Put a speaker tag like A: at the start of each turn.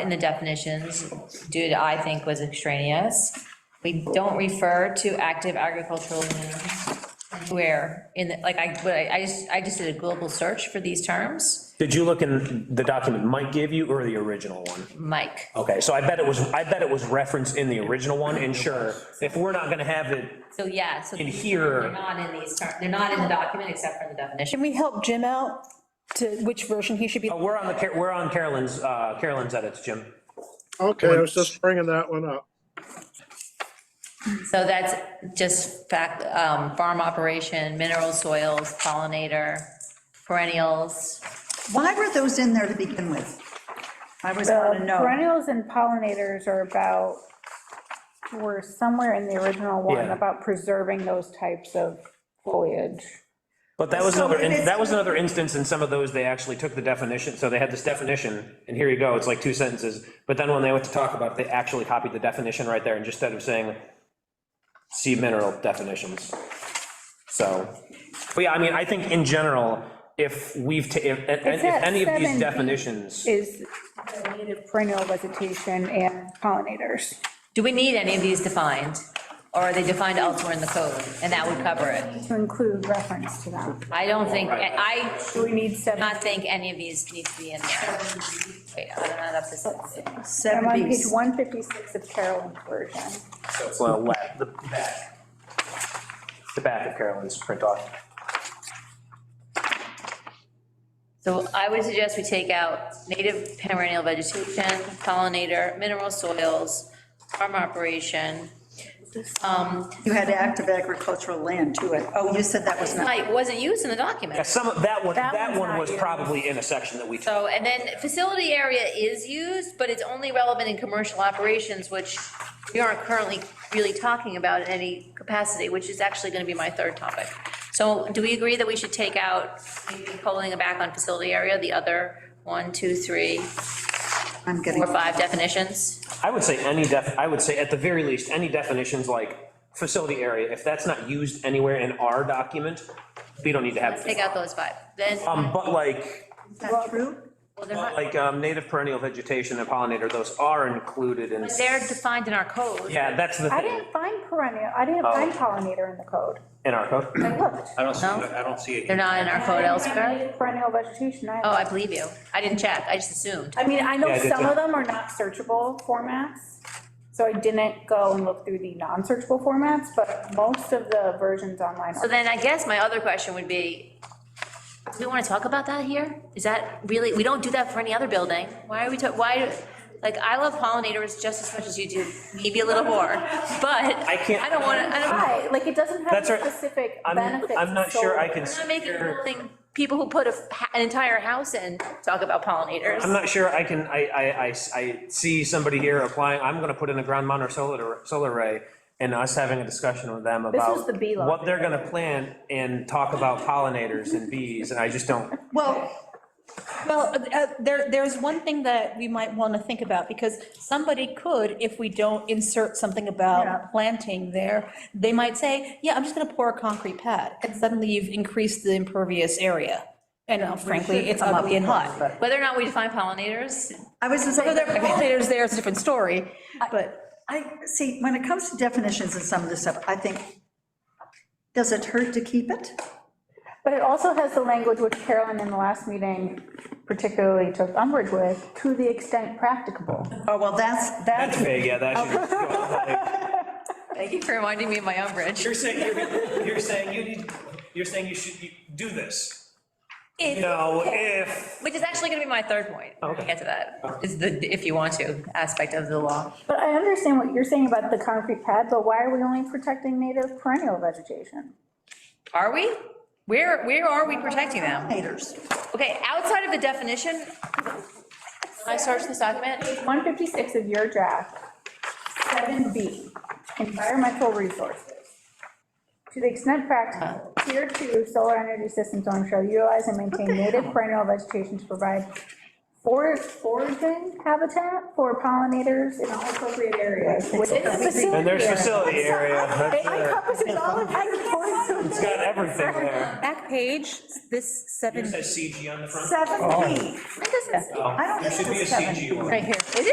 A: in the definitions, due to, I think, was extraneous. We don't refer to active agricultural lands where, in, the like, I, but I I just, I just did a global search for these terms.
B: Did you look in the document Mike gave you or the original one?
A: Mike,
B: Okay, so I bet it was, I bet it was referenced in the original one, and sure, if we're not gonna have it
A: so yeah, so
B: in
A: they're
B: here,
A: not in these terms, they're not in the document except for in the definition.
C: Can we help Jim out to which version he should be?
B: oh, we're on the, Car- we're on Carolyn's, uh, Carolyn's edits, Jim.
D: Okay, I was just bringing that one up.
A: So that's just fact, um, farm operation, mineral soils, pollinator, perennials.
E: Why were those in there to begin with? I was want to
F: The
E: know.
F: perennials and pollinators are about, were somewhere in the original one,
B: Yeah.
F: about preserving those types of foliage.
B: But that was
E: So
B: another,
E: if
B: in-
E: it's-
B: that was another instance in some of those, they actually took the definition, so they had this definition, and here you go, it's like two sentences, but then when they went to talk about it, they actually copied the definition right there, and just instead of saying, see mineral definitions. So, but yeah, I mean, I think in general, if we've, ta- if, if if
F: that
B: any of these
F: 7B?
B: definitions,
F: Is the native perennial vegetation and pollinators.
A: Do we need any of these defined? Or are they defined elsewhere in the code? And that would cover it.
F: To include reference to that.
A: I don't think, I
F: Do we need
A: do
F: seven?
A: not think any of these need to be in there. Wait, I'm not up to seven.
F: I'm on page
E: 70s.
F: 156 of Carolyn's version.
B: it's the left, the back, the back of Carolyn's print off.
A: So I would suggest we take out native perennial vegetation, pollinator, mineral soils, farm operation. Um,
E: You had active agricultural land to it. Oh, you said that was not,
A: Like, wasn't used in the document.
B: Yeah, some, of that one,
F: That
B: that
F: one's
B: one
F: not
B: was
F: used.
B: probably in a section that we took.
A: So, and then facility area is used, but it's only relevant in commercial operations, which we aren't currently really talking about in any capacity, which is actually gonna be my third topic. So do we agree that we should take out, maybe pulling it back on facility area, the other one, two, three,
E: I'm getting,
A: four, five definitions?
B: I would say any def, I would say at the very least, any definitions like facility area, if that's not used anywhere in our document, we don't need to have.
A: Let's take out those five, then,
B: Um, but like,
E: is that true?
A: well, they're not,
B: but like um, native perennial vegetation and pollinator, those are included in.
A: they're defined in our code.
B: Yeah, that's the
F: I
B: thing
F: didn't find perennial, I didn't find pollinator in the code.
B: in our code.
F: I looked.
G: I don't see,
A: No?
G: I don't see it.
A: They're not in our code elsewhere?
F: Perennial vegetation, I.
A: Oh, I believe you, I didn't check, I just assumed.
F: I mean, I
B: Yeah,
F: know
B: I did
F: some
B: too.
F: of them are not searchable formats, so I didn't go and look through the non-searchable formats, but most of the versions online
A: So
F: are.
A: then I guess my other question would be, do we want to talk about that here? Is that really, we don't do that for any other building. Why are we, ta- why, like, I love pollinators just as much as you do, maybe a little more, but I
B: can't-
A: I don't want to, I don't, I'm
F: Right, like, it doesn't have
B: That's
F: the
B: right.
F: specific
B: I'm,
F: benefits.
B: I'm not sure I can.
A: not making
B: secure-
A: building, people who put a h- an entire house in talk about
B: I'm
A: pollinators.
B: not sure I can, I, I, I, I see somebody here applying, I'm gonna put in a ground mount or solar, solar array, and us having a discussion with them
F: was
B: about
F: the bee lot.
B: what they're gonna plant and talk about pollinators and bees, and I just don't,
E: Well,
C: Well, uh, there, there's one thing that we might want to think about, because somebody could, if we don't insert something
E: Yeah.
C: about planting there, they might say, yeah, I'm just going to pour a concrete pad, and suddenly you've increased the impervious area. And uh, frankly, it's ugly and hot.
A: Whether or not we define pollinators,
E: I was just
C: Whether
E: saying,
C: they're pollinators there is a different story, but
E: I, see, when it comes to definitions and some of this stuff, I think, does it hurt to keep it?
F: But it also has the language which Carolyn in the last meeting particularly took umbrage with, to the extent practicable.
E: Oh, well, that's,
B: that's
E: that,
B: vague, yeah, that
A: thank you for reminding me of my umbrage.
G: You're saying, you're, you're saying you need, you're saying you should you do this.
B: should, you know, if,
A: Which is actually going to be my third point.
B: Oh,
A: I'll Get to that, is the, if you want to, aspect of the law.
F: But I understand what you're saying about the concrete pad, but why are we only protecting native perennial vegetation?
A: Are we? Where, where are we protecting them?
E: haters.
A: Okay, outside of the definition, I searched this document,
F: 156 of your draft, 7B, environmental resources. To the extent practical, tier two solar energy system zone shall utilize and maintain native perennial vegetation to provide for foraging habitat for pollinators in all appropriate areas within the facility.
B: And there's
F: area.
B: facility area, that's
F: It
B: it.
F: encompasses all of
B: It's got everything there.
C: Back page, this seven
G: Yours says CG on the front.
E: Seven B.
F: It doesn't
G: Oh,
E: I don't
G: There
E: think
G: should be a
E: it's seven.
G: CG one.
C: right here.